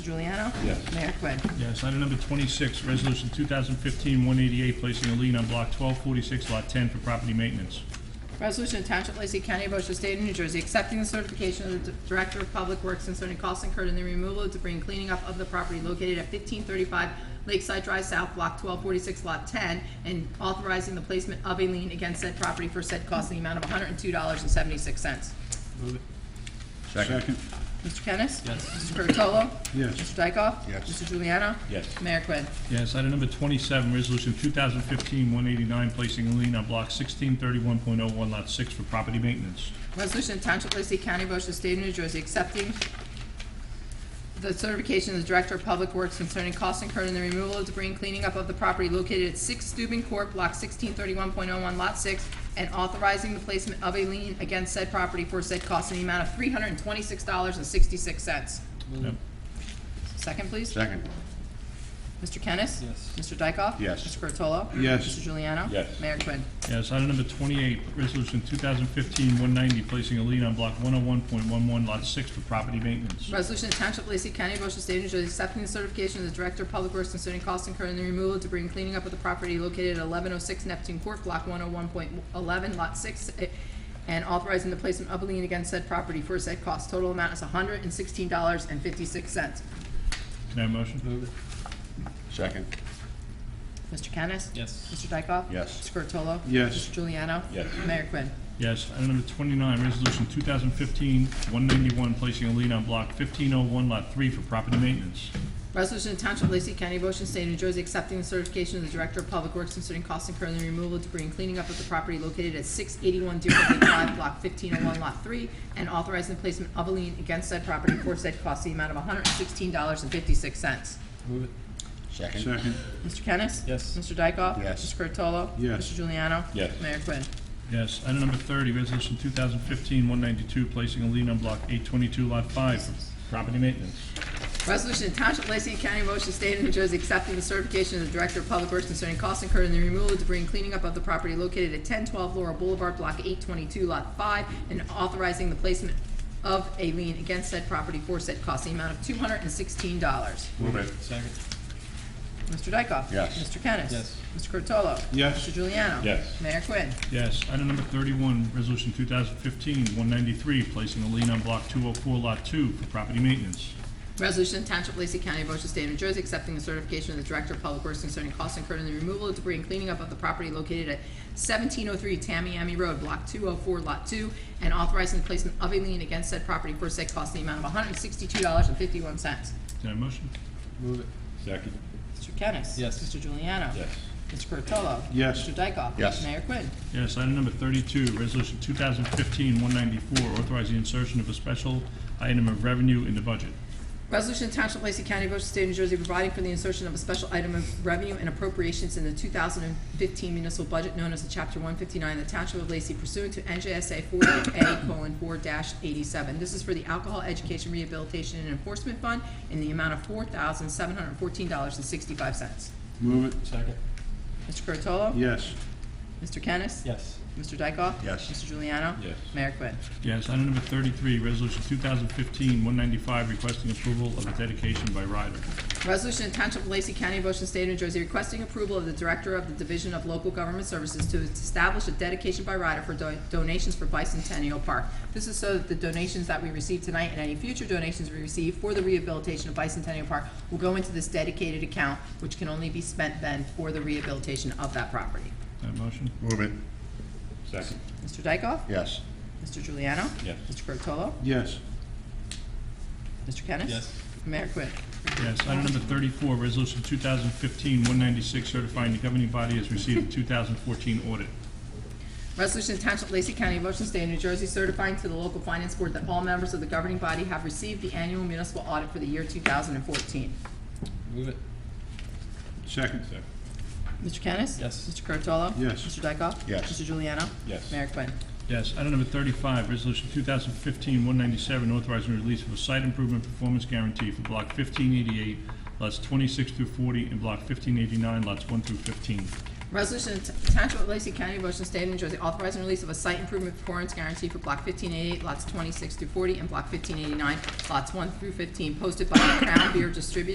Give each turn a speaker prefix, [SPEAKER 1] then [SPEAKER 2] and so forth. [SPEAKER 1] Juliano?
[SPEAKER 2] Yes.
[SPEAKER 1] Mayor Quinn.
[SPEAKER 3] Yes, item number 26, resolution 2015-188, placing a lien on block 1246, lot 10 for property maintenance.
[SPEAKER 1] Resolution to Township of Lacey County, Ocean State of New Jersey, accepting the certification of the Director of Public Works concerning costs incurred in the removal of debris and cleaning up of the property located at fifteen thirty-five Lakeside Drive South, block twelve forty-six, lot ten, and authorizing the placement of a lien against said property for said cost in the amount of hundred and two dollars and seventy-six cents.
[SPEAKER 2] Second.
[SPEAKER 1] Mr. Kennis? Yes. Mr. Curatolo?
[SPEAKER 2] Yes.
[SPEAKER 1] Mr. Dykoff?
[SPEAKER 2] Yes.
[SPEAKER 1] Mr. Juliano?
[SPEAKER 2] Yes.
[SPEAKER 1] Mayor Quinn.
[SPEAKER 3] Yes, item number 27, resolution 2015-189, placing a lien on block 1631.01, lot 6 for property maintenance.
[SPEAKER 1] Resolution of Township of Lacey County, Ocean State of New Jersey, accepting the certification of the Director of Public Works concerning costs incurred in the removal of debris and cleaning up of the property located at Six Steuben Court, Block sixteen thirty-one point oh one, Lot six, and authorizing the placement of a lien against said property for said costs in the amount of three hundred and twenty-six dollars and sixty-six cents.
[SPEAKER 3] Yep.
[SPEAKER 1] Second, please.
[SPEAKER 2] Second.
[SPEAKER 1] Mr. Kennis?
[SPEAKER 4] Yes.
[SPEAKER 1] Mr. Dykoff?
[SPEAKER 2] Yes.
[SPEAKER 1] Mr. Curatolo?
[SPEAKER 2] Yes.
[SPEAKER 1] Mr. Juliano?
[SPEAKER 2] Yes.
[SPEAKER 1] Mayor Quinn.
[SPEAKER 3] Yes, item number 28, resolution 2015-190, placing a lien on block 101.11, lot 6 for property maintenance.
[SPEAKER 1] Resolution to Township of Lacey County, Ocean State of New Jersey, accepting the certification of the Director of Public Works concerning costs incurred in the removal of debris and cleaning up of the property located at eleven oh six Neptune Court, block one oh one point eleven, lot six, eh, and authorizing the placement of a lien against said property for said cost. Total amount is hundred and sixteen dollars and fifty-six cents.
[SPEAKER 3] Can I have a motion?
[SPEAKER 4] Move it.
[SPEAKER 2] Second.
[SPEAKER 1] Mr. Kennis?
[SPEAKER 4] Yes.
[SPEAKER 1] Mr. Dykoff?
[SPEAKER 2] Yes.
[SPEAKER 1] Mr. Curatolo?
[SPEAKER 2] Yes.
[SPEAKER 1] Mr. Juliano?
[SPEAKER 2] Yes.
[SPEAKER 1] Mayor Quinn.
[SPEAKER 3] Yes, item number 29, resolution 2015-191, placing a lien on block 1501, lot 3 for property maintenance.
[SPEAKER 1] Resolution to Township of Lacey County, Ocean State, New Jersey, accepting the certification of the Director of Public Works concerning costs incurred in the removal of debris and cleaning up of the property located at six eighty-one Deerfield Lake Drive, block fifteen oh one, lot three, and authorizing the placement of a lien against said property for said cost, the amount of hundred and sixteen dollars and fifty-six cents.
[SPEAKER 4] Move it.
[SPEAKER 2] Second. Second.
[SPEAKER 1] Mr. Kennis?
[SPEAKER 4] Yes.
[SPEAKER 1] Mr. Dykoff?
[SPEAKER 2] Yes.
[SPEAKER 1] Mr. Curatolo?
[SPEAKER 2] Yes.
[SPEAKER 1] Mr. Juliano?
[SPEAKER 2] Yes.
[SPEAKER 1] Mayor Quinn.
[SPEAKER 3] Yes, item number thirty, resolution 2015-192, placing a lien on block eight twenty-two, lot five for property maintenance.
[SPEAKER 1] Resolution to Township of Lacey County, Ocean State of New Jersey, accepting the certification of the Director of Public Works concerning costs incurred in the removal of debris and cleaning up of the property located at ten twelve Laurel Boulevard, block eight twenty-two, lot five, and authorizing the placement of a lien against said property for said cost, the amount of two hundred and sixteen dollars.
[SPEAKER 2] Move it.
[SPEAKER 4] Second.
[SPEAKER 1] Mr. Dykoff?
[SPEAKER 2] Yes.
[SPEAKER 1] Mr. Kennis?
[SPEAKER 4] Yes.
[SPEAKER 1] Mr. Curatolo?
[SPEAKER 2] Yes.
[SPEAKER 1] Mr. Juliano?
[SPEAKER 2] Yes.
[SPEAKER 1] Mayor Quinn.
[SPEAKER 3] Yes, item number thirty-one, resolution 2015-193, placing a lien on block two oh four, lot two for property maintenance.
[SPEAKER 1] Resolution to Township of Lacey County, Ocean State, New Jersey, accepting the certification of the Director of Public Works concerning costs incurred in the removal of debris and cleaning up of the property located at seventeen oh three Tamiami Road, block two oh four, lot two, and authorizing the placement of a lien against said property for said cost in the amount of hundred and sixty-two dollars and fifty-one cents.
[SPEAKER 3] Can I have a motion?
[SPEAKER 4] Move it.
[SPEAKER 2] Second.
[SPEAKER 1] Mr. Kennis?
[SPEAKER 4] Yes.
[SPEAKER 1] Mr. Juliano?
[SPEAKER 2] Yes.
[SPEAKER 1] Mr. Curatolo?
[SPEAKER 2] Yes.
[SPEAKER 1] Mr. Dykoff?
[SPEAKER 2] Yes.
[SPEAKER 1] Mayor Quinn.
[SPEAKER 3] Yes, item number thirty-two, resolution 2015-194, authorizing insertion of a special item of revenue in the budget.
[SPEAKER 1] Resolution to Township of Lacey County, Ocean State, New Jersey, providing for the insertion of a special item of revenue and appropriations in the 2015 municipal budget known as the Chapter 159 of the Township of Lacey pursuant to NJSA 48A:4-87. This is for the Alcohol Education Rehabilitation and Enforcement Fund in the amount of $4,714.65.
[SPEAKER 2] Move it.
[SPEAKER 4] Second.
[SPEAKER 1] Mr. Curatolo?
[SPEAKER 2] Yes.
[SPEAKER 1] Mr. Kennis?
[SPEAKER 4] Yes.
[SPEAKER 1] Mr. Dykoff?
[SPEAKER 2] Yes.
[SPEAKER 1] Mr. Juliano?
[SPEAKER 2] Yes.
[SPEAKER 1] Mayor Quinn.
[SPEAKER 3] Yes, item number thirty-three, resolution 2015-195, requesting approval of a dedication by rider.
[SPEAKER 1] Resolution to Township of Lacey County, Ocean State, New Jersey, requesting approval of the Director of the Division of Local Government Services to establish a dedication by rider for do- donations for Bicentennial Park. This is so that the donations that we receive tonight and any future donations we receive for the rehabilitation of Bicentennial Park will go into this dedicated account, which can only be spent then for the rehabilitation of that property.
[SPEAKER 3] Can I have a motion?
[SPEAKER 2] Move it. Second.
[SPEAKER 1] Mr. Dykoff?
[SPEAKER 2] Yes.
[SPEAKER 1] Mr. Juliano?
[SPEAKER 2] Yes.
[SPEAKER 1] Mr. Curatolo?
[SPEAKER 2] Yes.
[SPEAKER 1] Mr. Kennis?
[SPEAKER 4] Yes.
[SPEAKER 1] Mayor Quinn.
[SPEAKER 3] Yes, item number thirty-four, resolution 2015-196, certifying the governing body has received the two thousand fourteen audit.
[SPEAKER 1] Resolution to Township of Lacey County, Ocean State, New Jersey, certifying to the local finance board that all members of the governing body have received the annual municipal audit for the year two thousand and fourteen.
[SPEAKER 4] Move it.
[SPEAKER 2] Second. Second.
[SPEAKER 1] Mr. Kennis?
[SPEAKER 4] Yes.
[SPEAKER 1] Mr. Curatolo?
[SPEAKER 2] Yes.
[SPEAKER 1] Mr. Dykoff?
[SPEAKER 2] Yes.
[SPEAKER 1] Mr. Juliano?
[SPEAKER 2] Yes.
[SPEAKER 1] Mayor Quinn.
[SPEAKER 3] Yes, item number thirty-five, resolution 2015-197, authorizing the release of a site improvement performance guarantee for block fifteen eighty-eight, lots twenty-six through forty, and block fifteen eighty-nine, lots one through fifteen.
[SPEAKER 1] Resolution of the Township of Lacey County, Ocean State of New Jersey, authorizing release of a site improvement performance guarantee for Block 1588, lots 26 through 40, and Block 1589, lots 1 through 15, posted by Crown Beer Distributors